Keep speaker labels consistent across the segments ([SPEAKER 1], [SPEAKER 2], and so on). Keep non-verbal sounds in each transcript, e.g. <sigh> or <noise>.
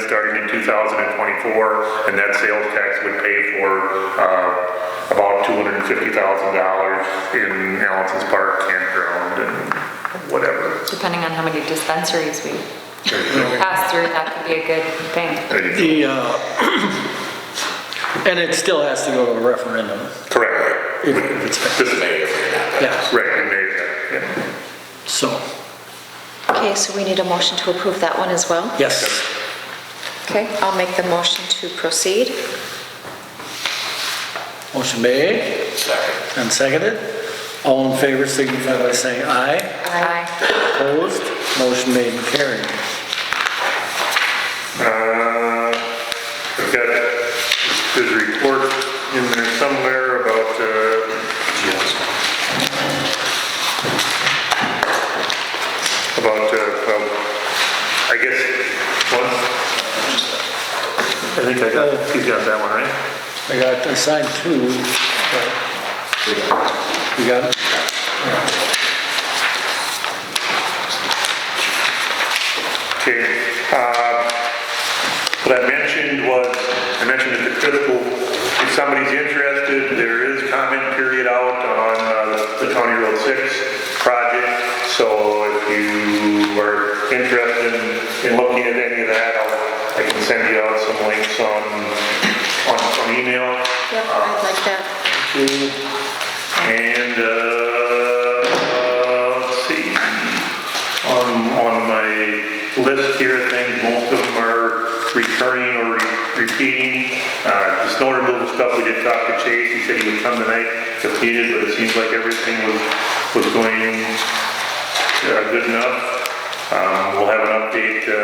[SPEAKER 1] starting in 2024, and that sales tax would pay for uh, about $250,000 in Allison's Park campground and whatever.
[SPEAKER 2] depending on how many dispensaries we pass through, that could be a good thing.
[SPEAKER 1] Correct.
[SPEAKER 3] The, uh, <clears throat> and it still has to go to a referendum. if- if it's-
[SPEAKER 1] This is
[SPEAKER 3] Yeah,
[SPEAKER 1] Right, in May, yeah.
[SPEAKER 3] so,
[SPEAKER 4] Okay, so we need a motion to approve that one as well?
[SPEAKER 3] yes.
[SPEAKER 4] Okay, I'll make the motion to proceed.
[SPEAKER 3] Motion made. And seconded. All in favor signify by saying aye.
[SPEAKER 2] Aye.
[SPEAKER 3] Opposed? Motion made and carried.
[SPEAKER 1] Uh, I've got his report in there somewhere about, uh, about, uh, well, I guess, one, I think I got, he's got that one, right?
[SPEAKER 3] I got assigned two. but- You got it?
[SPEAKER 1] Okay, uh, what I mentioned was, I mentioned at the critical, if somebody's interested, there is comment period out on uh, the County Road 6 project, so if you are interested in- in looking at any of that, I'll, I can send you out some links on, on, on email.
[SPEAKER 4] Yep, I'd like that.
[SPEAKER 1] And, uh, let's see, on, on my list here, I think most of them are recurring or re- repeating. Uh, the snow removal stuff, we did talk to Chase, he said he would come tonight if needed, but it seems like everything was, was going uh, good enough. Um, We'll have an update, uh,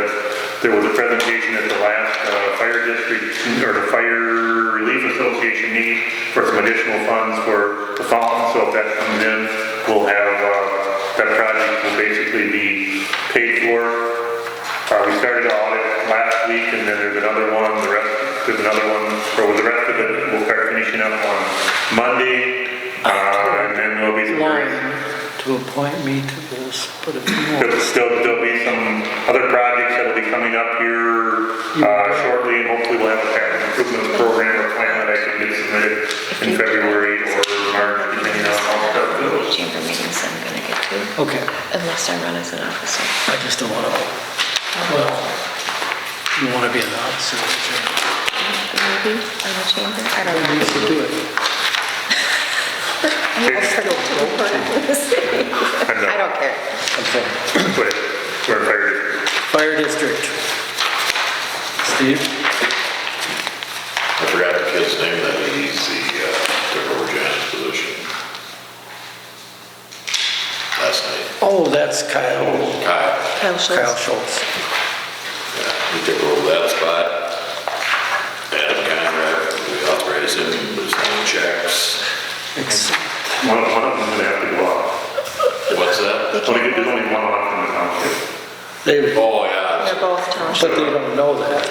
[SPEAKER 1] there was a presentation at the last uh, fire district, or the Fire Relief Association meeting for some additional funds for the fountain, so if that comes in, we'll have, uh, that project will basically be paid for. Uh, We started the audit last week, and then there's another one, the rest, there's another one, or the rest of it, we'll start finishing up on Monday, Uh, and then there'll be some...
[SPEAKER 3] To appoint me to this, but if you
[SPEAKER 1] There'll
[SPEAKER 3] want.
[SPEAKER 1] still, there'll be some other projects that'll be coming up here uh, shortly, and hopefully we'll have a capital improvement program or plan that I can get submitted in February or March, depending on how stuff goes.
[SPEAKER 4] Chamber meetings I'm gonna get to,
[SPEAKER 3] Okay,
[SPEAKER 4] unless I run as an officer.
[SPEAKER 3] I just don't want to, well, you want to be an officer.
[SPEAKER 4] Maybe, on the chamber, I don't
[SPEAKER 3] You
[SPEAKER 4] know.
[SPEAKER 3] should do it.
[SPEAKER 4] I'm gonna start to report on this. I don't care.
[SPEAKER 3] Okay.
[SPEAKER 1] uh, But we're in fire district.
[SPEAKER 3] Fire district. Steve?
[SPEAKER 5] I forgot the kid's name, that he's the, uh, took over Jan's position. Last night,
[SPEAKER 3] Oh, that's Kyle.
[SPEAKER 5] Kyle,
[SPEAKER 4] Kyle
[SPEAKER 3] Kyle
[SPEAKER 4] Schultz.
[SPEAKER 3] Schultz.
[SPEAKER 5] he took over that spot. Adam Conrad, we authorized him, to do his own checks.
[SPEAKER 3] It's-
[SPEAKER 1] One of, one of them's gonna have to go off.
[SPEAKER 5] What's that?
[SPEAKER 1] Only, there's only one off in the township.
[SPEAKER 3] They,
[SPEAKER 5] Oh, yeah,
[SPEAKER 4] They're both township.
[SPEAKER 3] but they don't know that.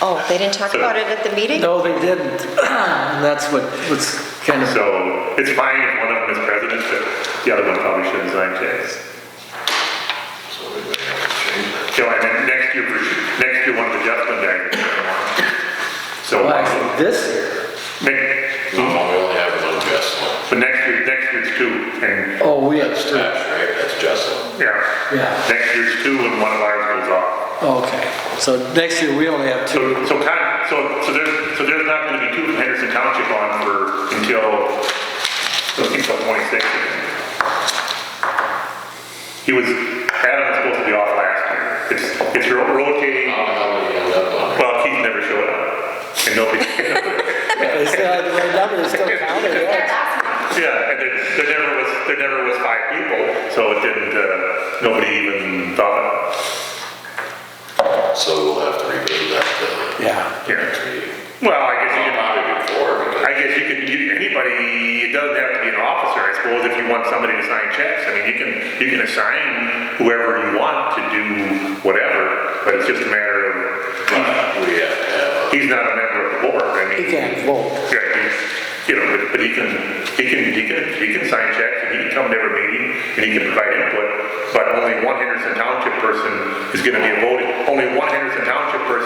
[SPEAKER 4] Oh, they didn't talk about it at the meeting?
[SPEAKER 3] No, they didn't. <clears throat> And that's what was kind of,
[SPEAKER 1] So it's fine if one of them is president, but the other one probably shouldn't sign checks.
[SPEAKER 5] so we may have to change that.
[SPEAKER 1] So I mean, next year, next year, one of the Justin daggers. So.
[SPEAKER 3] well, actually, this year.
[SPEAKER 1] Next,
[SPEAKER 5] No, we only have one Jessalyn.
[SPEAKER 1] But next year, next year's two, and,
[SPEAKER 3] Oh, we have
[SPEAKER 5] That's
[SPEAKER 3] three.
[SPEAKER 5] Tash, right? That's Jessalyn.
[SPEAKER 1] yeah,
[SPEAKER 3] Yeah,
[SPEAKER 1] next year's two and one of ours goes off.
[SPEAKER 3] okay. So next year, we only have
[SPEAKER 1] So,
[SPEAKER 3] <laughs> two.
[SPEAKER 1] so kind of, so, so there's, so there's not gonna be two from Henderson Township on for, until, until twenty-six. He was, Adam was supposed to be off last year, it's, it's ro- rotating,
[SPEAKER 5] How the hell did he end up on it?
[SPEAKER 1] well, Keith never showed up, and nobody, <laughs>
[SPEAKER 3] They still had the right number, it's still counted, yeah.
[SPEAKER 1] yeah, and there, there never was, there never was five people, so it didn't, uh, nobody even thought,
[SPEAKER 5] So we'll have to revisit that,
[SPEAKER 3] Yeah.
[SPEAKER 5] uh, next meeting.
[SPEAKER 1] well, I guess you
[SPEAKER 5] Well,
[SPEAKER 1] could.
[SPEAKER 5] Probably before, because
[SPEAKER 1] I guess you can, you, anybody, it doesn't have to be an officer, I suppose, if you want somebody to sign checks. I mean, you can, you can assign whoever you want to do whatever, but it's just a matter of,
[SPEAKER 5] we have to have a
[SPEAKER 1] he's not a member of the board, I mean.
[SPEAKER 3] He can't vote.
[SPEAKER 1] Yeah, he's, you know, but- but he can, he can, he can, he can sign checks, and he can come to every meeting, and he can provide input, but only one Henderson Township person is gonna be a voting, only one Henderson Township person